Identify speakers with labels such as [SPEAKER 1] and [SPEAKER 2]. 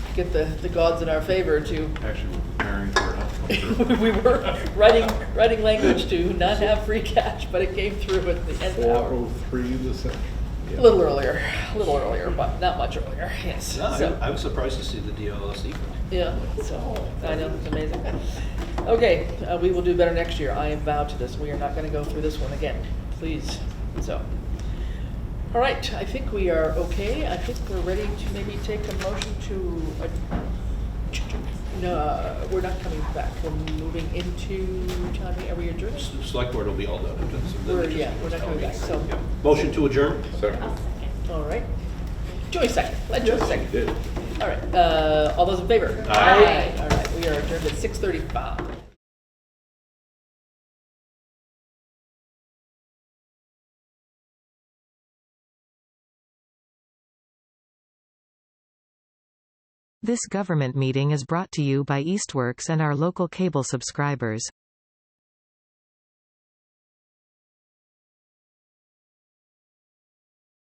[SPEAKER 1] get the, the gods in our favor to,
[SPEAKER 2] Actually, we're preparing for an outcome.
[SPEAKER 1] we were writing, writing language to not have free cash, but it came through at the end
[SPEAKER 3] Four
[SPEAKER 1] hour.
[SPEAKER 3] oh three this afternoon.
[SPEAKER 1] A little earlier, a little earlier, but not much earlier, yes.
[SPEAKER 4] No,
[SPEAKER 1] So-
[SPEAKER 4] I- I was surprised to see the DLS equal.
[SPEAKER 1] Yeah, so, I know, it's amazing. Okay, uh, we will do better next year. I am vowed to this. We are not gonna go through this one again, please, so. All right, I think we are okay. I think we're ready to maybe take a motion to, ad- no, uh, we're not coming back. We're moving into, John, are we adjourned?
[SPEAKER 4] S- Select board will be all done. and then- so then
[SPEAKER 1] We're-
[SPEAKER 4] they just-
[SPEAKER 1] yeah, we're not coming back, so-
[SPEAKER 4] Yeah. Motion to adjourn?
[SPEAKER 3] Second.
[SPEAKER 1] All right. Joy second, let Joy second.
[SPEAKER 3] Did.
[SPEAKER 1] All right, uh, all those in favor?
[SPEAKER 4] Aye.
[SPEAKER 1] All right, we are adjourned at six thirty-five.
[SPEAKER 5] This government meeting is brought to you by Eastworks and our local cable subscribers.